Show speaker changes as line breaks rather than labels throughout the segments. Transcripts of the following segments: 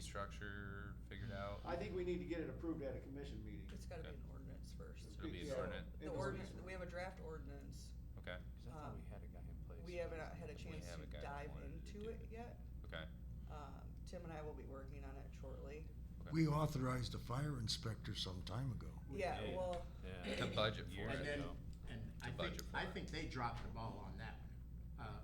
structure figured out?
I think we need to get it approved at a commission meeting.
It's gotta be an ordinance first.
It'll be an
Yeah.
ordinance.
The ordinance, we have a draft ordinance.
Okay,
Cause I thought we had a guy in place.
Um, We haven't had a
We
chance
have
to
a guy that
dive
wanted to
into
do
it
it.
yet.
okay.
Um, Tim and I will be working on it shortly.
okay.
We authorized a fire inspector some time ago.
Yeah,
did.
well,
Yeah.
The budget for
Years
it,
And then,
ago.
and I think,
budget for
I
it.
think they dropped the ball on that one, uh,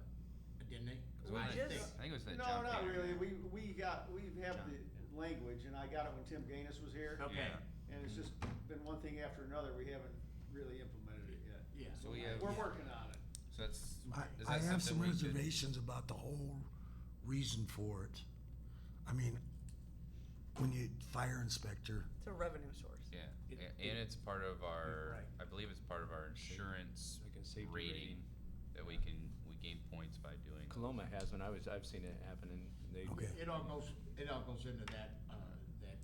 didn't they?
'Cause when
I
I-
just-
I think it was that
No,
John
not
Deere.
really. We, we got, we have the
John, yeah.
language and I got it when Tim Gaines was here.
Okay,
Yeah.
And it's just been one thing after another. We haven't really implemented it yet.
yeah.
So we have-
We're working on it.
So that's.
I,
is
I
that something
have some
we could-
reservations about the whole reason for it. I mean, when you, fire inspector,
it's a revenue source.
Yeah,
It-
A-
it-
and it's part of our,
Right.
I believe it's part of our insurance
Like a safety
rating
rating.
that we can, we gain points by doing.
Coloma has one. I was, I've seen it happen and they.
Okay.
It all goes, it all goes into that, uh, that,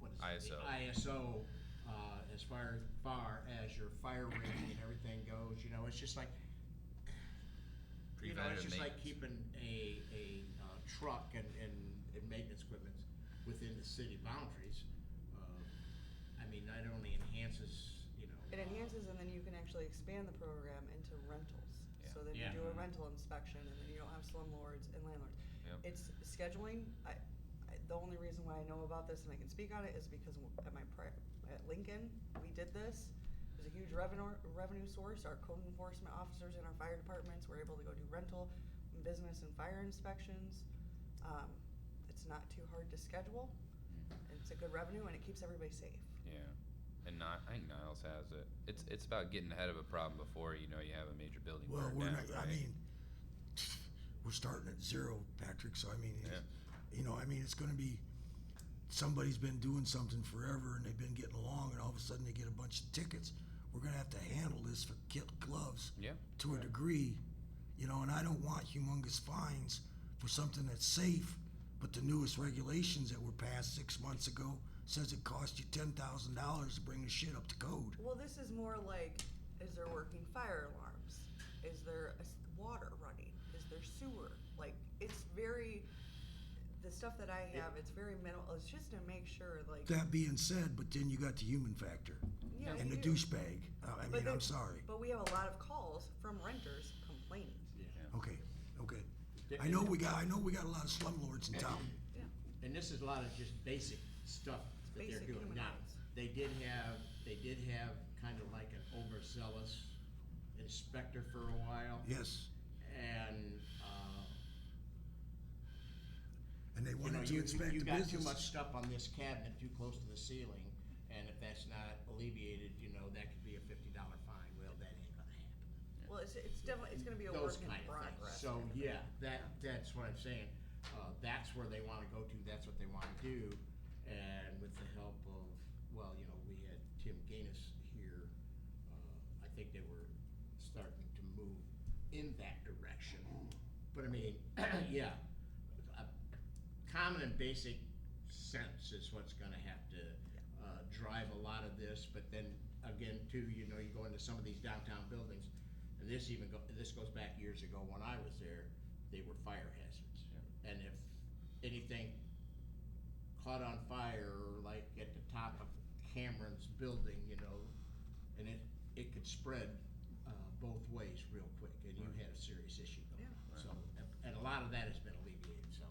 what is it?
ISO.
The ISO, uh, as far, far as your fire rating and everything goes, you know, it's just like, you know, it's
Preventative
just like
maintenance.
keeping a, a, uh, truck and, and, and maintenance equipment within the city boundaries. Uh, I mean, that only enhances, you know.
It
uh,
enhances and then you can actually expand the program into rentals.
Yeah.
So
Mm-hmm.
then you
Yeah.
do a rental inspection and then you don't have slumlords and landlords.
Yep.
It's scheduling, I, I, the only reason why I know about this and I can speak on it is because at my, pri- at Lincoln, we did this. It was a huge revenue, revenue source, our code enforcement officers in our fire departments were able to go do rental, business and fire inspections. Um, it's not too hard to schedule,
Mm-hmm.
it's a good revenue and it keeps everybody safe.
Yeah, and not, I think Niles has it. It's it's about getting ahead of a problem before you know you have a major building.
well,
burn
we're
down,
not, I
right?
mean, we're starting at zero, Patrick, so I mean, it's- you know, I mean, it's gonna be, somebody's been doing something forever and they've been getting along and all of a sudden they get a bunch of tickets. We're gonna have to handle this for kid gloves.
yeah,
to a degree, you know, and I don't want humongous fines for something that's safe, but the newest regulations that were passed six months ago says it costs you ten thousand dollars to bring the shit up to code.
Well, this is more like, is there working fire alarms? Is there a s- water running? Is there sewer? Like, it's very, the stuff that I have, it's very minimal, it's just to make sure, like.
That being said, but then you got the human factor
yeah,
and
you
the
do.
douchebag. Uh, I
But
mean, I'm
there-
sorry.
But we have a lot of calls from renters complaining.
Okay, okay. I know we got, I know we got a lot of slumlords in town.
Yeah.
And this is a lot of just basic stuff that they're
Basic
doing
human
now.
rights.
They did have, they did have kind of like an overzealous inspector for a while.
Yes,
And, uh,
and they
you know,
wanted to
you,
inspect
you
the
got too much
business.
stuff on this cabinet too close to the ceiling, and if that's not alleviated, you know, that could be a fifty dollar fine. Well, that ain't gonna happen.
Well, it's, it's definitely, it's gonna be a
Those
work in
kind of things.
progress.
So, yeah, that, that's what I'm saying. Uh, that's where they wanna go to, that's what they wanna do. And with the help of, well, you know, we had Tim Gaines here, uh, I think they were starting to move in that direction. But I mean, yeah, a common and basic sense is what's gonna have to, uh, drive a lot of this. But then again, too, you know, you go into some of these downtown buildings, and this even go, this goes back years ago when I was there, they were fire hazards. And if anything caught on fire, like at the top of Cameron's building, you know, and it, it could spread, uh, both ways real quick, and you had a serious issue going.
Yeah.
So, and- and a lot of that has been alleviated, so,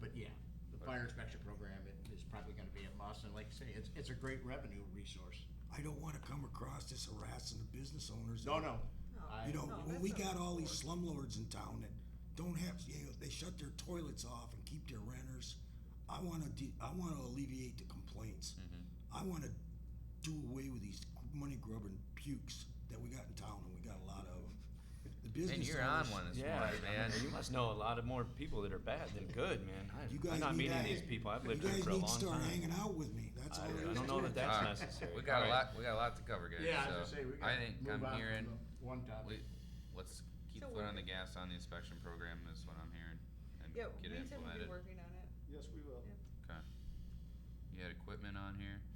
but yeah, the fire inspection program it is probably gonna be a must, and like I say, it's, it's a great revenue resource.
I don't wanna come across as harassing the business owners.
No, no.
No.
I-
You
Oh,
know,
No,
when
that's
we
not
got all these slumlords in town that don't have, you know, they shut their toilets off and keep their renters. I want to, de- I want to alleviate the complaints. I
Mm-hmm.
want to do away with these money grubbing pukes that we got in town, and we got a lot of. The business.
and you're on
owners-
one this
Yeah,
morning,
I
man.
mean, you must know a lot of more people that are bad than good, man. I,
You guys
I'm not
need
meeting
to-
these people. I've lived
you
here
guys
for a
need
long
to start
time.
hanging out with me. That's
I,
all.
I don't
is to
know
it.
that that's
Alright.
necessary.
We got a
All right.
lot. We got a lot to cover, guys.
Yeah,
so
I was gonna say, we
I
gotta
think
move
I'm
on from
hearing.
the one topic.
We, let's keep
So
foot on
we're-
the gas on the inspection program. Is what I'm hearing, and
Yeah,
get it
we said we'd be
implemented.
working on it.
Yes, we will.
Yeah.
Okay. You had equipment on here.
uh,